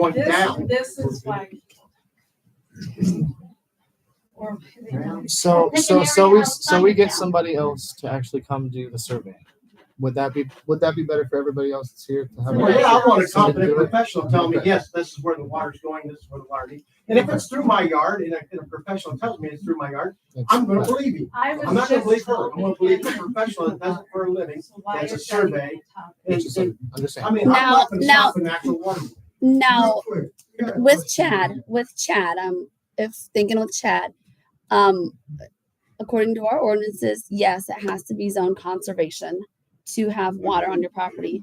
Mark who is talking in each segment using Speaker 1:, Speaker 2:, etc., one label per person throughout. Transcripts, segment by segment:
Speaker 1: going
Speaker 2: This,
Speaker 1: down.
Speaker 2: this is why. Or they don't.
Speaker 3: So,
Speaker 4: They
Speaker 3: so,
Speaker 4: can
Speaker 3: so
Speaker 4: narrow
Speaker 3: we,
Speaker 4: down
Speaker 3: so we get
Speaker 4: funding.
Speaker 3: somebody else to actually come do the survey. Would that be, would that be better for everybody else that's here to have?
Speaker 1: Well, yeah, I want a competent
Speaker 3: Somebody do it.
Speaker 1: professional telling me, yes, this is where the water's going, this is where the water needs. And if it's through my yard and a, and a professional tells me it's through my yard, I'm gonna believe you.
Speaker 2: I was
Speaker 1: I'm not gonna
Speaker 2: just
Speaker 1: believe her. I'm gonna believe the
Speaker 2: told-
Speaker 1: professional that does it for a living.
Speaker 2: So why
Speaker 1: It's a
Speaker 2: is that even
Speaker 1: survey.
Speaker 2: a topic?
Speaker 3: It's just like- I'm just
Speaker 1: I
Speaker 3: saying,
Speaker 1: mean, I'm not gonna
Speaker 4: Now-
Speaker 1: stop an actual water.
Speaker 4: No,
Speaker 1: Real quick.
Speaker 4: with Chad, with Chad, um, if thinking with Chad, um, according to our ordinances, yes, it has to be zone conservation to have water on your property.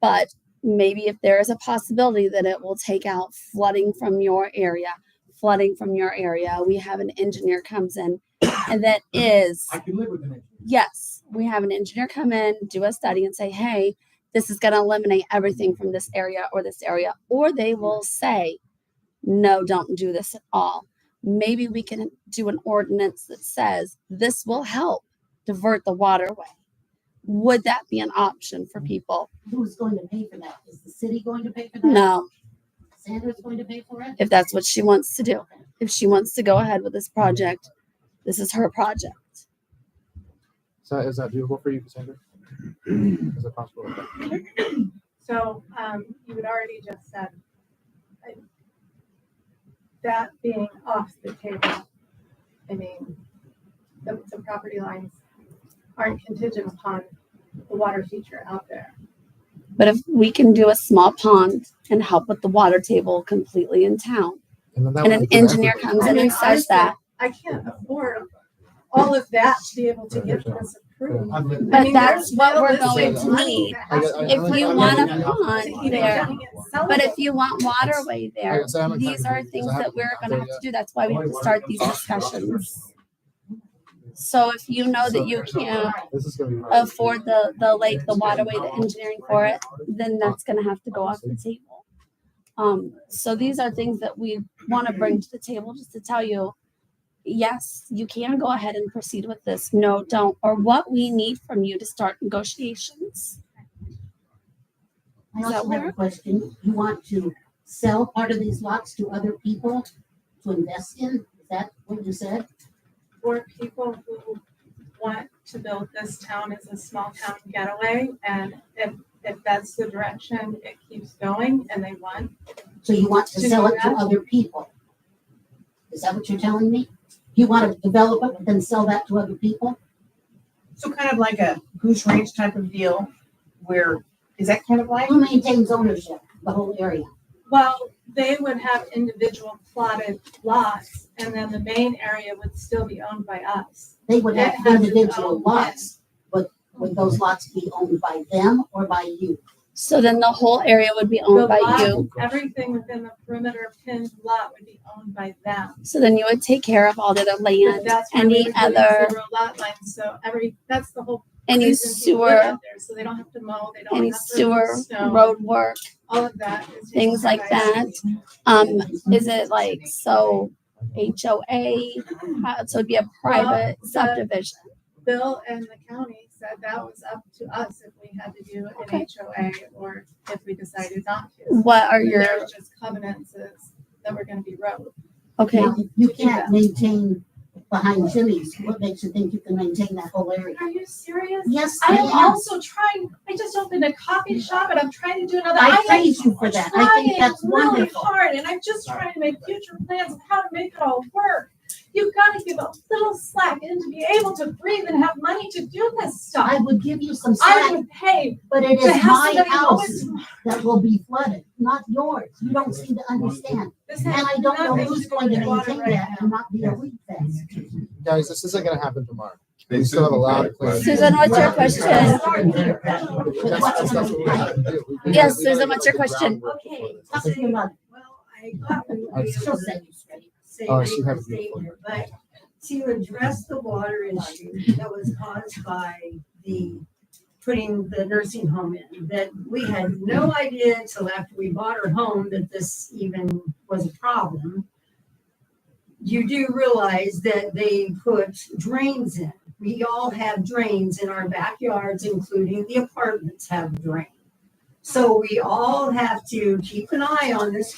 Speaker 4: But maybe if there is a possibility that it will take out flooding from your area, flooding from your area, we have an engineer comes in and that is
Speaker 1: I can live with it.
Speaker 4: yes, we have an engineer come in, do a study, and say, hey, this is going to eliminate everything from this area or this area. Or they will say, no, don't do this at all. Maybe we can do an ordinance that says this will help divert the waterway. Would that be an option for people?
Speaker 5: who's going to pay for that? Is the city going to pay for that?
Speaker 4: No,
Speaker 5: Sandra's going to pay for it?
Speaker 4: if that's what she wants to do. If she wants to go ahead with this project, this is her project.
Speaker 3: is that, is that doable for you, Cassandra? Is it possible?
Speaker 2: So, um, you had already just said. uh, That being off the table, I mean, the, the property lines aren't contingent upon the water feature out there.
Speaker 4: But if we can do a small pond and help with the water table completely in town,
Speaker 3: then that
Speaker 4: and
Speaker 3: would
Speaker 4: an
Speaker 3: be good
Speaker 4: engineer
Speaker 3: effort.
Speaker 4: comes
Speaker 2: I
Speaker 4: in
Speaker 2: mean,
Speaker 4: and says
Speaker 2: honestly,
Speaker 4: that.
Speaker 2: I can't afford all of that to be able to get this approved.
Speaker 1: I've lived with
Speaker 2: I
Speaker 4: But
Speaker 2: mean,
Speaker 4: that's
Speaker 2: there's
Speaker 4: what we're
Speaker 2: no
Speaker 4: going
Speaker 3: way
Speaker 4: to
Speaker 3: to
Speaker 4: need.
Speaker 3: I guess- I-
Speaker 4: If
Speaker 3: I-
Speaker 4: you
Speaker 3: I- I-
Speaker 4: want
Speaker 1: a
Speaker 3: I-
Speaker 4: pond
Speaker 3: I-
Speaker 2: You know,
Speaker 4: there,
Speaker 2: getting it sellable.
Speaker 4: But if you want waterway
Speaker 3: I
Speaker 4: there,
Speaker 3: guess I haven't
Speaker 4: these
Speaker 3: tried to
Speaker 4: are
Speaker 3: do-
Speaker 4: things
Speaker 3: I
Speaker 4: that
Speaker 3: haven't
Speaker 4: we're
Speaker 3: tried
Speaker 4: gonna have
Speaker 3: yet.
Speaker 4: to do. That's why we have to start these discussions. So if you know that you can't
Speaker 3: This is gonna be.
Speaker 4: afford the, the lake, the waterway, the engineering for it,
Speaker 3: uh,
Speaker 4: then that's gonna have to go off the table. Um, so these are things that we wanna bring to the table just to tell you, yes, you can go ahead and proceed with this. No, don't, or what we need from you to start negotiations.
Speaker 5: I
Speaker 4: Does that
Speaker 5: also have a
Speaker 4: work?
Speaker 5: question. You want to sell part of these lots to other people to invest in? Is that what you said?
Speaker 2: for people who want to build this town as a small town getaway. And if, if that's the direction it keeps going and they want,
Speaker 5: So you want to
Speaker 2: To
Speaker 5: sell it to
Speaker 2: that?
Speaker 5: other people? Is that what you're telling me? You want to develop it and then sell that to other people?
Speaker 6: So kind of like a goose range type of deal where, is that kind of like?
Speaker 5: Who maintains ownership, the whole area?
Speaker 2: well, they would have individual plotted lots and then the main area would still be owned by us.
Speaker 5: They would
Speaker 2: That
Speaker 5: have
Speaker 2: has its
Speaker 5: individual
Speaker 2: own
Speaker 5: lots, but would those lots be owned by them or by you?
Speaker 4: So then the whole area would be
Speaker 2: The
Speaker 4: owned by you.
Speaker 2: lot, Everything within the perimeter pinned lot would be owned by them.
Speaker 4: So then you would take care of all the other
Speaker 2: And
Speaker 4: land,
Speaker 2: that's where we
Speaker 4: any
Speaker 2: would put in
Speaker 4: other,
Speaker 2: zero Lot lines, so every, that's the whole.
Speaker 4: any
Speaker 2: reason people live
Speaker 4: sewer,
Speaker 2: out there, So they don't have to mow, they don't
Speaker 4: any
Speaker 2: have to remove
Speaker 4: sewer,
Speaker 2: snow,
Speaker 4: road work.
Speaker 2: all of that. is taken
Speaker 4: things like
Speaker 2: care by us.
Speaker 4: that. Um, is it like, so HOA, uh, so it'd be a private
Speaker 2: the-
Speaker 4: subdivision?
Speaker 2: Bill and the county said that was up to us if we had to do an
Speaker 4: Okay.
Speaker 2: HOA or if we decided not to.
Speaker 4: What are
Speaker 2: And
Speaker 4: your,
Speaker 2: There was just covenants is that were gonna be wrote.
Speaker 4: okay,
Speaker 5: Now, if You can't maintain behind Jimmy's. What makes you think you can maintain that whole area?
Speaker 7: Are you serious?
Speaker 5: Yes, I
Speaker 7: I am
Speaker 5: am.
Speaker 7: also trying, I just opened a coffee shop and I'm trying to do another.
Speaker 5: I
Speaker 7: am
Speaker 5: praise you for that. I think
Speaker 7: trying
Speaker 5: that's
Speaker 7: really
Speaker 5: wonderful.
Speaker 7: hard and I'm just trying to make future plans of how to make it all work. You've got to give a little slack and to be able to breathe and have money to do this
Speaker 5: I
Speaker 7: stuff.
Speaker 5: would give you some
Speaker 7: I
Speaker 5: slack,
Speaker 7: would pay
Speaker 5: but it
Speaker 7: to
Speaker 5: is
Speaker 7: have
Speaker 5: my
Speaker 7: somebody mow
Speaker 5: house
Speaker 7: it tomorrow.
Speaker 5: that will be flooded, not yours. You don't seem to understand.
Speaker 2: This
Speaker 5: And
Speaker 2: has
Speaker 5: I don't know
Speaker 2: nothing
Speaker 5: who's
Speaker 2: do
Speaker 5: going to
Speaker 2: with water
Speaker 5: maintain
Speaker 2: right
Speaker 5: that
Speaker 2: now.
Speaker 5: and not be a weak fence.
Speaker 3: Guys, this isn't gonna happen tomorrow.
Speaker 8: They
Speaker 3: still have a lot of
Speaker 4: Susan, what's your question?
Speaker 3: That's, that's, that's what we have to do. We- we-
Speaker 4: Yes,
Speaker 3: we gotta
Speaker 4: Susan, what's
Speaker 3: get
Speaker 4: your
Speaker 3: the
Speaker 4: question?
Speaker 3: groundwork for
Speaker 7: Okay.
Speaker 3: this.
Speaker 5: Talk to your mother.
Speaker 7: Well, I got them
Speaker 3: I-
Speaker 5: She'll set you straight.
Speaker 3: Oh, she had a beautiful.
Speaker 7: but to address the water issue that was caused by the putting the nursing home in, that we had no idea until after we bought her home that this even was a problem. You do realize that they put drains in. We all have drains in our backyards, including the apartments have drains. So we all have to keep an eye on this